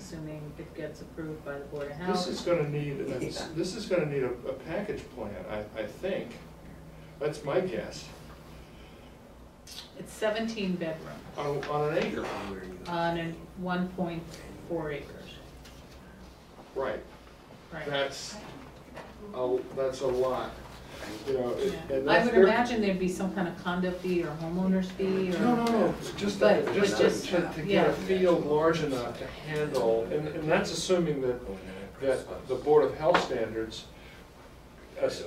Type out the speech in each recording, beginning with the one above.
assuming it gets approved by the Board of Health. This is gonna need, this is gonna need a, a package plan, I, I think. That's my guess, It's seventeen bedrooms on, on an acre, on a one point four acres, right. right? That's, a that's a lot, you know, it- Yeah. and I that's. would they're- imagine there'd be some kind of condo fee or homeowner's fee or. No, no, no, it's just, But- to- but just to- just, to, to get yeah. a field large enough to handle, and, and that's assuming that, that the Board of Health standards as-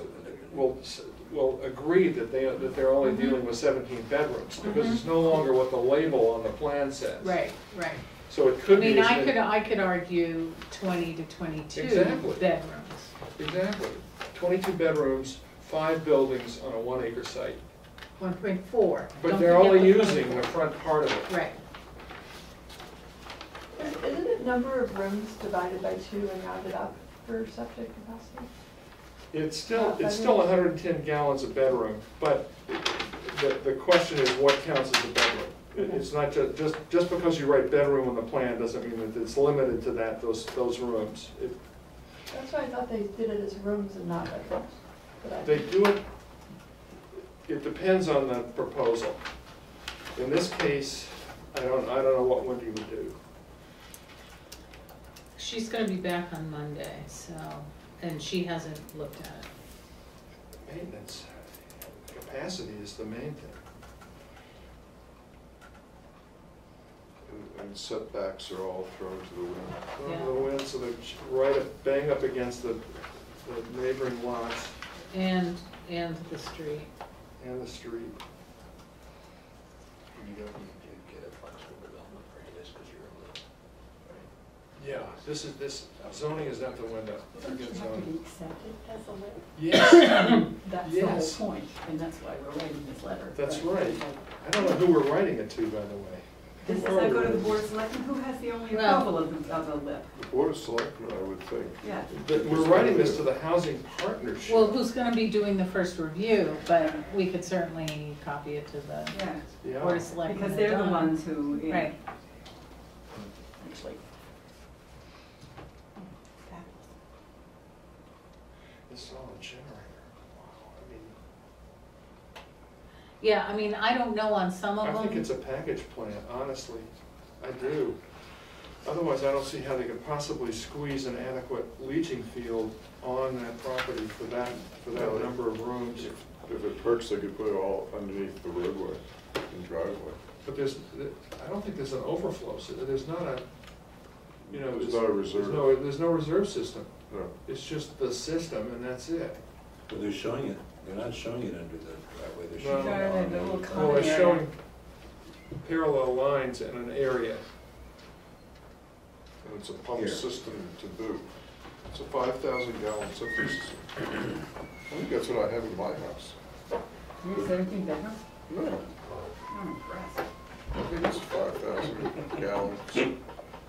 will, s- will agree that they, that they're Mm-hmm. only dealing with seventeen bedrooms, because it's no longer what the label on the plan says. Right, right. So it I could be. mean, as I many- could, uh, I could argue twenty to twenty-two Exactly. bedrooms. Exactly, twenty-two bedrooms, five buildings on a one-acre site, One point four. but they're only using the front part of it. Right. Isn't it number of rooms divided by two and rounded up for septic capacity? It's still, it's still hundred and ten gallons a bedroom, but the, the question is what counts as a bedroom? It- It's not ju, just, just because you write bedroom on the plan doesn't mean that it's limited to that, those, those rooms. It- That's why I thought they did it as rooms and not bedrooms. but I- They do it, it depends on the proposal. In this case, I don't, I don't know what Wendy would do. She's gonna be back on Monday, so, and she hasn't looked at it. Maintenance, capacity is the main thing. And- And setbacks are all thrown to the wind. The wind, so they're right up, bang up against the the neighboring lots. And, and the street. And the street. You don't need to get a flexible development for this, because you're in the, Yeah. This is, this zoning is out the window. Don't you Forget have to zoning. be accepted as a lit? Yes, That's the whole Yes. point, and that's why we're writing this letter. that's right. I don't know who we're writing it to, by the way. Does Who that are we go to the writing board of selectmen, who has the only Well- approval of, of a lip? The Board of Selectmen, I would think. Yeah. it to? But we're writing this to the housing partnership. Well, who's gonna be doing the first review, but we could certainly copy it to the Yeah, Yeah. Board of Selectmen. because and they're the Donna. ones who, yeah, Right, actually. Fabulous. This is all a generator. Wow, I mean, yeah, I mean, I don't know on some of them. I think it's a package plan, honestly. I do. Otherwise, I don't see how they could possibly squeeze an adequate leaching field on that property for that, for that number of rooms. If it perks, they could put it all underneath the roadway and driveway. But there's, I don't think there's an overflow, so there's not a, you know, There's there's. not a there's reserve. no- There's no reserve system, No. it's just the system and that's it. But they're showing it, they're not showing it under the driveway, they're No. showing it Sorry, on the little the. Common Well, Oh, it's area. showing parallel lines in an area. And it's a pump Here. system to boot. It's a five thousand gallon septic system. I think that's what I have in my house. You're seventeen bedrooms? No, I'm impressed. I think it's five thousand gallons,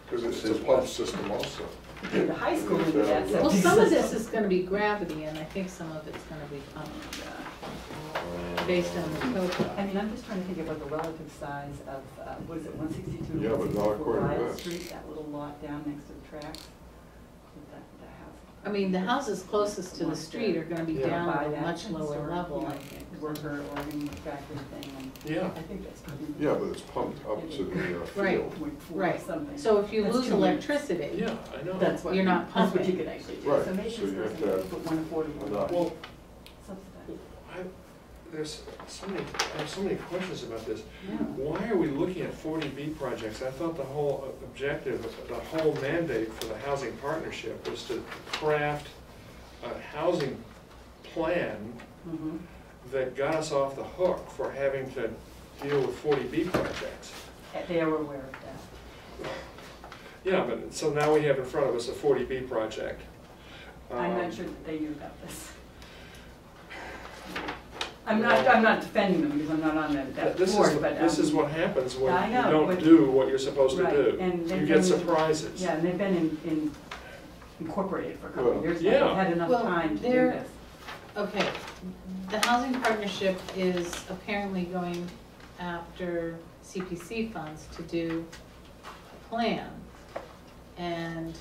because it's a pump system also. The high school would do that. Well, Well, septic some of this system. is gonna be gravity, and I think some of it's gonna be pumped, based on the I COPA. mean, I'm just trying to think about the relative size of, uh, what is it, one sixty-two? Yeah, but not according to this. Street, that little lot down next to the tracks, with that, that house. I mean, the houses closest to the street are gonna be Yeah. down By at a that much lower sort of, level, you know, I think. Worker organ factory thing, and Yeah. I think that's probably. Yeah, but it's pumped up to the uh, Right. field. Point four or Right, something. so if you That's lose too many. electricity, Yeah, I know. That's what. You're not That's what you pumping. could actually do, Right, so maybe it's so you have supposed to to have- put one affordable. Well, Subsidized. I, there's so many, I have so many questions about this. Yeah. Why are we looking at forty B projects? I thought the whole uh, objective, the whole mandate for the housing partnership was to craft a housing plan Mm-hmm. Mhm. that got us off the hook for having to deal with forty B projects. Uh, They were aware of that. Yeah, but, so now we have in front of us a forty B project. I'm Um, not sure that they knew about this. I'm not, I'm not defending them because I'm not on that, that This is, board, but. this um, is what happens when I you know, don't but- do what you're supposed to Right, do. and they've You been- get surprises. Yeah, and they've been in, in incorporated for a couple of Well, years, now. yeah. they've had enough Well, time to do they're- this. okay, the housing partnership is apparently going after CPC funds to do a plan and